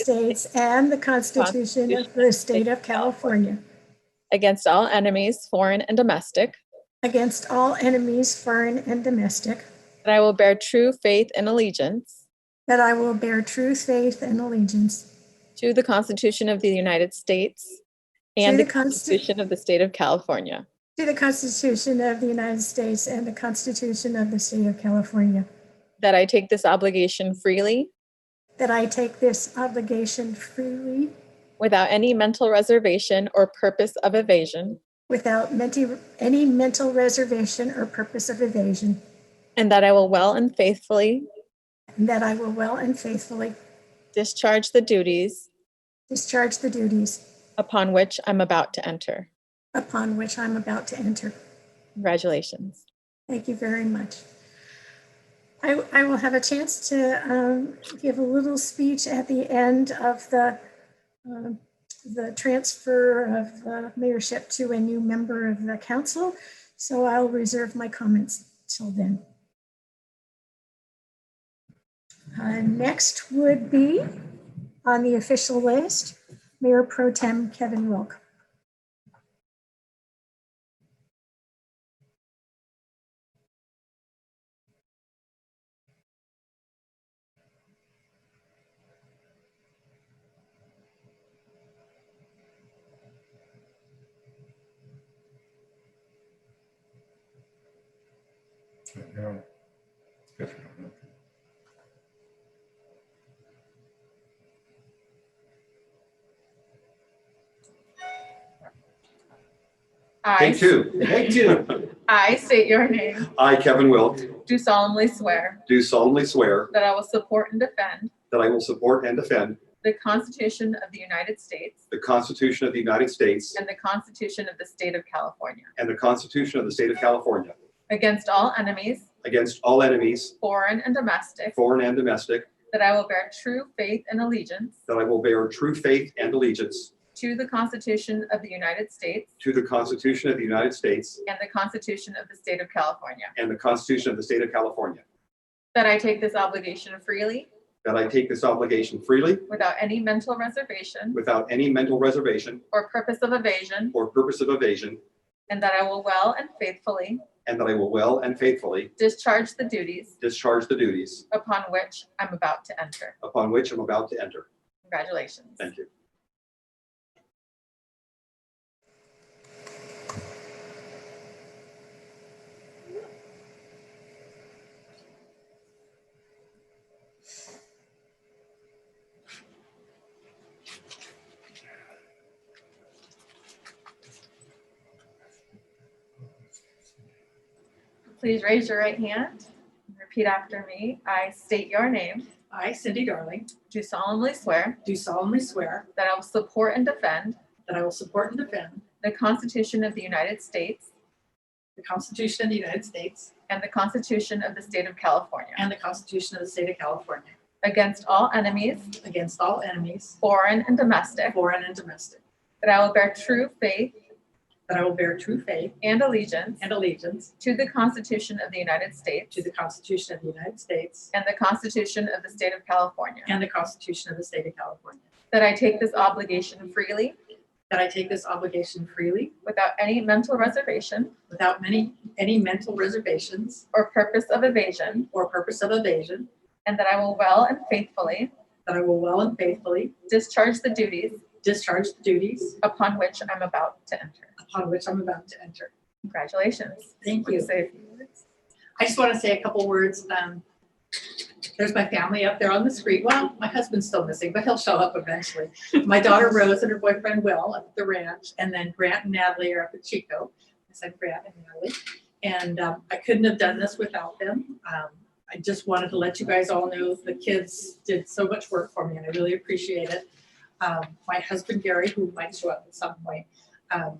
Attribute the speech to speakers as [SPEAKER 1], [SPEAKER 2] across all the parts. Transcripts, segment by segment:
[SPEAKER 1] States and the Constitution of the State of California
[SPEAKER 2] against all enemies, foreign and domestic,
[SPEAKER 1] against all enemies, foreign and domestic,
[SPEAKER 2] that I will bear true faith and allegiance
[SPEAKER 1] that I will bear true faith and allegiance
[SPEAKER 2] to the Constitution of the United States and the
[SPEAKER 1] To the Consti-
[SPEAKER 2] Constitution of the State of California,
[SPEAKER 1] to the Constitution of the United States and the Constitution of the State of California,
[SPEAKER 2] that I take this obligation freely
[SPEAKER 1] that I take this obligation freely
[SPEAKER 2] without any mental reservation or purpose of evasion,
[SPEAKER 1] without menti- any mental reservation or purpose of evasion,
[SPEAKER 2] and that I will well and faithfully
[SPEAKER 1] and that I will well and faithfully
[SPEAKER 2] discharge the duties
[SPEAKER 1] discharge the duties
[SPEAKER 2] upon which I'm about to enter.
[SPEAKER 1] upon which I'm about to enter.
[SPEAKER 2] Congratulations.
[SPEAKER 1] Thank you very much. I, I will have a chance to um, give a little speech at the end of the, um, the transfer of the mayorship to a new member of the council. So I'll reserve my comments till then. Uh, Next would be on the official list, Mayor Pro Tem Kevin Wilk.
[SPEAKER 3] Yeah, you know, guess we don't know.
[SPEAKER 4] I,
[SPEAKER 5] Take two. Take two.
[SPEAKER 4] I state your name,
[SPEAKER 5] I, Kevin Wilk,
[SPEAKER 4] do solemnly swear
[SPEAKER 5] do solemnly swear
[SPEAKER 4] that I will support and defend
[SPEAKER 5] that I will support and defend
[SPEAKER 4] the Constitution of the United States
[SPEAKER 5] the Constitution of the United States
[SPEAKER 4] and the Constitution of the State of California
[SPEAKER 5] and the Constitution of the State of California
[SPEAKER 4] against all enemies,
[SPEAKER 5] against all enemies,
[SPEAKER 4] foreign and domestic,
[SPEAKER 5] foreign and domestic,
[SPEAKER 4] that I will bear true faith and allegiance
[SPEAKER 5] that I will bear true faith and allegiance
[SPEAKER 4] to the Constitution of the United States
[SPEAKER 5] to the Constitution of the United States
[SPEAKER 4] and the Constitution of the State of California,
[SPEAKER 5] and the Constitution of the State of California,
[SPEAKER 4] that I take this obligation freely
[SPEAKER 5] that I take this obligation freely
[SPEAKER 4] without any mental reservation
[SPEAKER 5] without any mental reservation
[SPEAKER 4] or purpose of evasion,
[SPEAKER 5] or purpose of evasion,
[SPEAKER 4] and that I will well and faithfully
[SPEAKER 5] and that I will well and faithfully
[SPEAKER 4] discharge the duties
[SPEAKER 5] discharge the duties
[SPEAKER 4] upon which I'm about to enter.
[SPEAKER 5] upon which I'm about to enter.
[SPEAKER 4] Congratulations.
[SPEAKER 5] Thank you.
[SPEAKER 4] Please raise your right hand and repeat after me. I state your name.
[SPEAKER 6] I, Cindy Darling,
[SPEAKER 4] Do solemnly swear
[SPEAKER 6] do solemnly swear
[SPEAKER 4] that I will support and defend
[SPEAKER 6] that I will support and defend
[SPEAKER 4] the Constitution of the United States
[SPEAKER 6] the Constitution of the United States
[SPEAKER 4] and the Constitution of the State of California
[SPEAKER 6] and the Constitution of the State of California
[SPEAKER 4] against all enemies,
[SPEAKER 6] against all enemies,
[SPEAKER 4] foreign and domestic,
[SPEAKER 6] foreign and domestic,
[SPEAKER 4] that I will bear true faith
[SPEAKER 6] that I will bear true faith
[SPEAKER 4] and allegiance
[SPEAKER 6] and allegiance
[SPEAKER 4] to the Constitution of the United States
[SPEAKER 6] to the Constitution of the United States
[SPEAKER 4] and the Constitution of the State of California,
[SPEAKER 6] and the Constitution of the State of California,
[SPEAKER 4] that I take this obligation freely
[SPEAKER 6] that I take this obligation freely
[SPEAKER 4] without any mental reservation
[SPEAKER 6] without many, any mental reservations
[SPEAKER 4] or purpose of evasion,
[SPEAKER 6] or purpose of evasion,
[SPEAKER 4] and that I will well and faithfully
[SPEAKER 6] that I will well and faithfully
[SPEAKER 4] discharge the duties
[SPEAKER 6] discharge the duties
[SPEAKER 4] upon which I'm about to enter.
[SPEAKER 6] upon which I'm about to enter.
[SPEAKER 4] Congratulations.
[SPEAKER 6] Thank
[SPEAKER 4] Please
[SPEAKER 6] you.
[SPEAKER 4] say a few words.
[SPEAKER 6] I just want to say a couple words. Um, there's my family up there on the street. Well, my husband's still missing, but he'll show up eventually. My daughter Rose and her boyfriend Will up at the ranch, and then Grant and Natalie are up at Chico. I said Grant and Natalie, and um, I couldn't have done this without them. Um, I just wanted to let you guys all know the kids did so much work for me, and I really appreciate it. Um, my husband Gary, who might show up at some point, um,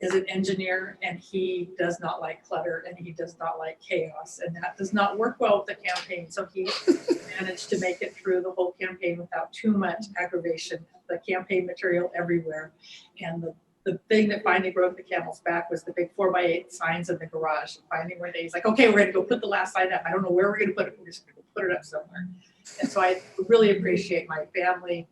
[SPEAKER 6] is an engineer and he does not like clutter and he does not like chaos and that does not work well with the campaign so he managed to make it through the whole campaign without too much aggravation the campaign material everywhere and the the thing that finally broke the camel's back was the big four by eight signs in the garage. And Finally, one day he's like, okay, we're gonna go put the last sign up. I don't know where we're gonna put it. We're just gonna put it up somewhere. And so I really appreciate my family,